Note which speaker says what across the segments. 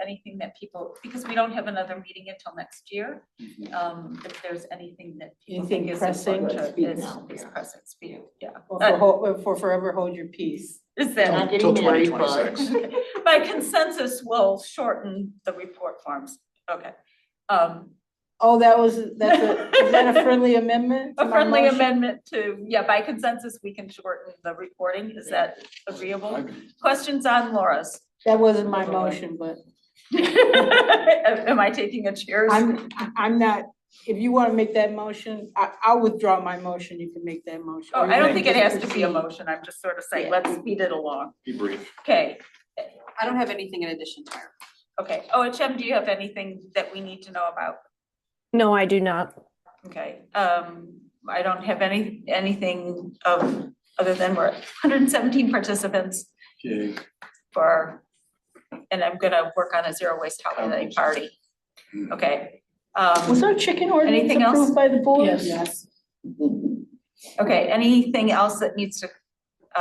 Speaker 1: anything that people, because we don't have another meeting until next year,
Speaker 2: Mhm.
Speaker 1: um, if there's anything that people
Speaker 3: Anything
Speaker 1: think is
Speaker 3: pressing?
Speaker 1: important,
Speaker 3: Let's speak
Speaker 1: is,
Speaker 3: now.
Speaker 1: is pressing, speak, yeah.
Speaker 3: Or for ho- or for forever hold your peace.
Speaker 1: Is
Speaker 2: Till-
Speaker 1: that,
Speaker 3: Not getting
Speaker 2: till
Speaker 3: married,
Speaker 2: 2026.
Speaker 1: by consensus, we'll shorten the report forms, okay. Um,
Speaker 3: Oh, that was, that's a, is that a friendly amendment? to
Speaker 1: a
Speaker 3: my
Speaker 1: friendly
Speaker 3: motion?
Speaker 1: amendment to, yeah, by consensus, we can shorten the reporting, is that agreeable?
Speaker 2: I'm-
Speaker 1: Questions on Laura's?
Speaker 3: That wasn't my motion, but
Speaker 1: Am I taking a chair?
Speaker 3: I'm, I'm not, if you wanna make that motion, I, I'll withdraw my motion, you can make that motion.
Speaker 1: Oh,
Speaker 3: or
Speaker 1: I
Speaker 3: you
Speaker 1: don't
Speaker 3: can
Speaker 1: think it
Speaker 3: just
Speaker 1: has to be a
Speaker 3: proceed.
Speaker 1: motion, I'm just sort of saying,
Speaker 3: Yeah.
Speaker 1: let's speed it along.
Speaker 2: Be brief.
Speaker 1: Okay,
Speaker 4: I don't have anything in addition to her.
Speaker 1: okay, OHM, do you have anything that we need to know about?
Speaker 5: No, I do not.
Speaker 1: Okay, um, I don't have any, anything of, other than we're hundred and seventeen participants
Speaker 2: Okay,
Speaker 1: for, and I'm gonna work on a zero waste holiday party. Okay, um.
Speaker 3: Was our chicken ordinance
Speaker 1: Anything else?
Speaker 3: approved by the board?
Speaker 4: Yes.
Speaker 1: Okay, anything else that needs to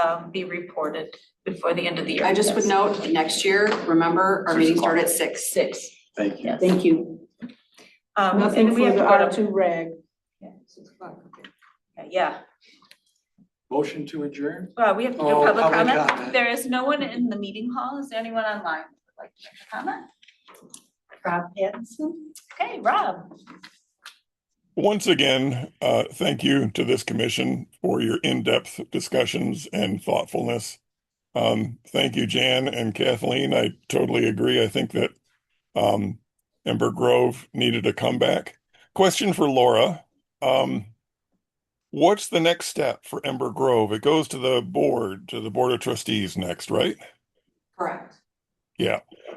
Speaker 1: um be reported before the end of the year?
Speaker 4: I just would note, next year, remember, our
Speaker 2: Six
Speaker 4: meeting
Speaker 2: o'clock.
Speaker 4: started at six. Six.
Speaker 2: thank you.
Speaker 1: Yes.
Speaker 3: Thank you.
Speaker 1: Um,
Speaker 3: Nothing
Speaker 1: and we
Speaker 3: for
Speaker 1: have to
Speaker 3: the
Speaker 1: go
Speaker 3: R
Speaker 1: to,
Speaker 3: two rag.
Speaker 1: yeah,
Speaker 2: Motion to adjourn?
Speaker 1: well, we have to do
Speaker 2: Oh,
Speaker 1: public
Speaker 2: public
Speaker 1: comment.
Speaker 2: comment.
Speaker 1: There is no one in the meeting hall. Is there anyone online who would like to make a comment? Rob Pattinson. Okay, Rob.
Speaker 6: Once again, uh, thank you to this commission for your in-depth discussions and thoughtfulness. Um, thank you, Jan and Kathleen. I totally agree. I think that um, Ember Grove needed a comeback. Question for Laura. Um, what's the next step for Ember Grove? It goes to the board, to the Board of Trustees next, right?
Speaker 4: Correct.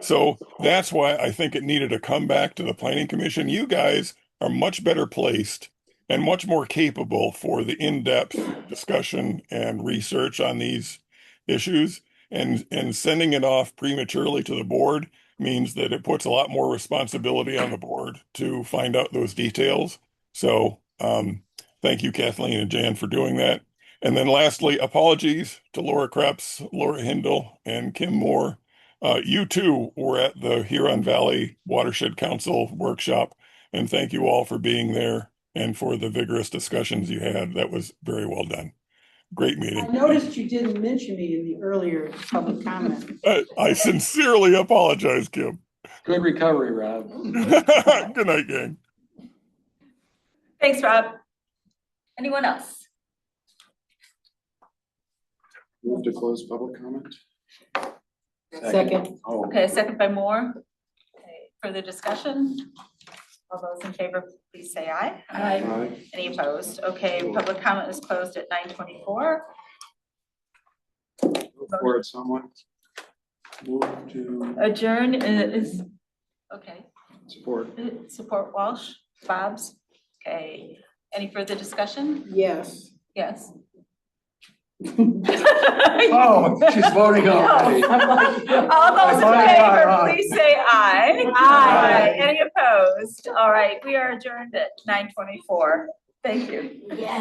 Speaker 6: So that's why I think it needed a comeback to the planning commission. You guys are much better placed and much more capable for the in-depth discussion and research on these issues. And, and sending it off prematurely to the board means that it puts a lot more responsibility on the board to find out those details. So, um, thank you Kathleen and Jan for doing that. And then lastly, apologies to Laura Krebs, Laura Hindle, and Kim Moore. Uh, you too were at the Huron Valley Watershed Council workshop, and thank you all for being there and for the vigorous discussions you had. That was very well done. Great
Speaker 3: I
Speaker 6: meeting.
Speaker 3: noticed you didn't mention me in the earlier public comment.
Speaker 6: I, I sincerely apologize, Kim.
Speaker 2: Good recovery, Rob.
Speaker 6: Good night, gang.
Speaker 1: Thanks, Rob. Anyone else?
Speaker 2: Move to close public comment?
Speaker 3: Second.
Speaker 2: Oh.
Speaker 1: Okay, second by Moore. Okay, Further discussion? All those in favor, please say aye.
Speaker 2: Aye.
Speaker 1: Any opposed? Okay, public comment is closed at nine twenty-four.
Speaker 2: Go For it, someone. Move to
Speaker 1: Adjourn is, okay,
Speaker 2: support.
Speaker 1: support Walsh, Bob's. Okay, any further discussion?
Speaker 3: Yes.
Speaker 1: Yes.
Speaker 2: Oh, she's voting already.
Speaker 3: I'm like,
Speaker 1: All those in
Speaker 2: Aye, aye,
Speaker 1: favor,
Speaker 2: aye.
Speaker 1: please say aye.
Speaker 2: Aye.
Speaker 1: Aye. Any opposed? All right, we are adjourned at nine twenty-four. Thank you.